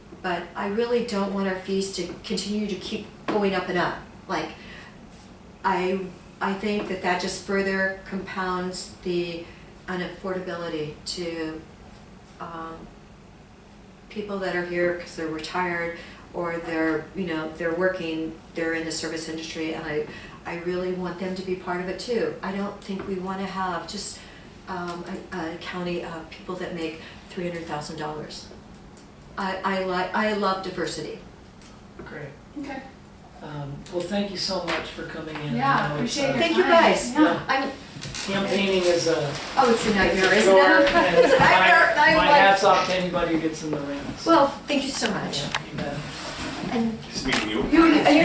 but I really don't want our fees to continue to keep going up and up. Like, I, I think that that just further compounds the unaffordability to, um, people that are here because they're retired or they're, you know, they're working, they're in the service industry, and I, I really want them to be part of it too. I don't think we wanna have just, um, a, a county of people that make three hundred thousand dollars. I, I like, I love diversity. Great. Okay. Um, Well, thank you so much for coming in. I Yeah, know it's, appreciate uh, your Thank you time. guys. Yeah. I'm, Campaigning is a. oh, it's a nightmare, it's a isn't chore, it? and It's a my- nightmare, I'm My like- hats off to anybody who gets in the ring. so, Well, thank you so yeah, much, you bet. and Just meeting you. you, you